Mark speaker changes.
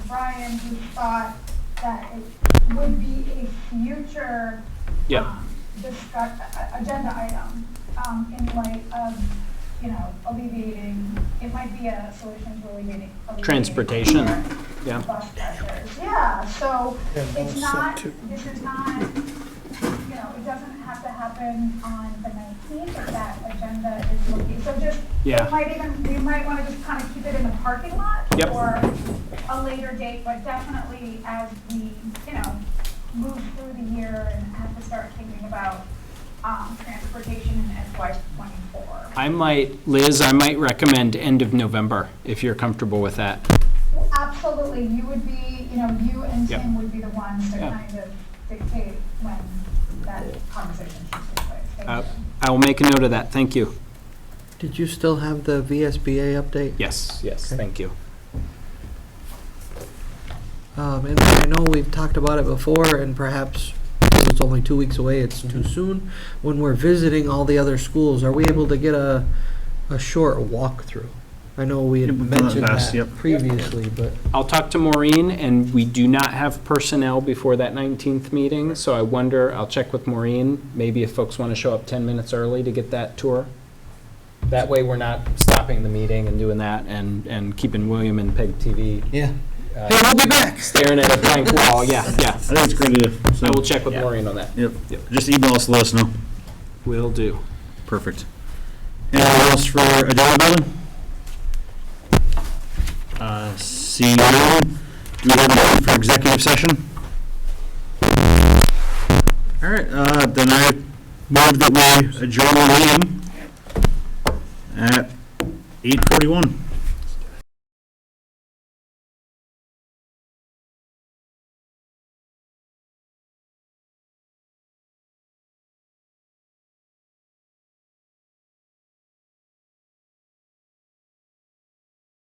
Speaker 1: Brian who thought that it would be a future
Speaker 2: Yeah.
Speaker 1: um, discuss, a- a- agenda item, um, in light of, you know, alleviating, it might be a solution to alleviating. alleviating
Speaker 2: Transportation,
Speaker 1: or
Speaker 2: yeah.
Speaker 1: Bus pressures, yeah, so
Speaker 3: Yeah,
Speaker 1: it's
Speaker 3: those
Speaker 1: not,
Speaker 3: two.
Speaker 1: this is not, you know, it doesn't have to happen on the nineteenth if that agenda is looking, so just, we
Speaker 2: Yeah.
Speaker 1: might even, we might wanna just kinda keep it in the parking lot
Speaker 2: Yep.
Speaker 1: or a later date, but definitely as we, you know, move through the year and have to start thinking about, um, transportation in FY twenty-four.
Speaker 2: I might, Liz, I might recommend end of November, if you're comfortable with that.
Speaker 1: Absolutely, you would be, you know, you and
Speaker 2: Yep.
Speaker 1: Tim would be the ones to
Speaker 2: Yeah.
Speaker 1: kind of dictate when that conversation should take place. Thank
Speaker 2: Uh,
Speaker 1: you.
Speaker 2: I will make a note of that, thank you.
Speaker 3: Did you still have the VSBA update?
Speaker 2: Yes, yes,
Speaker 3: Okay.
Speaker 2: thank you.
Speaker 3: Um, and I know we've talked about it before, and perhaps, because it's only two weeks away, it's
Speaker 4: Mm-hmm.
Speaker 3: too soon. When we're visiting all the other schools, are we able to get a, a short walkthrough? I know we had
Speaker 4: Yeah, we've done it
Speaker 3: mentioned
Speaker 4: last,
Speaker 3: that
Speaker 4: yep.
Speaker 3: previously, but,
Speaker 2: I'll talk to Maureen, and we do not have personnel before that 19th meeting, so I wonder, I'll check with Maureen, maybe if folks want to show up 10 minutes early to get that tour. That way, we're not stopping the meeting and doing that, and, and keeping William and Peg TV
Speaker 3: yeah.
Speaker 2: uh,
Speaker 3: Hey, we'll be back!
Speaker 2: staring at a blank wall, yeah, yeah.
Speaker 4: I think it's a great idea. so-
Speaker 2: I will check with
Speaker 4: Yeah.
Speaker 2: Maureen on that.
Speaker 4: Yep, just email us, let us know.
Speaker 2: Will do.
Speaker 4: Perfect. Anything else for agenda building? Uh, Seeing none, do we have a motion for executive session? All right, uh, then I move that we adjourn the meeting at 8:41.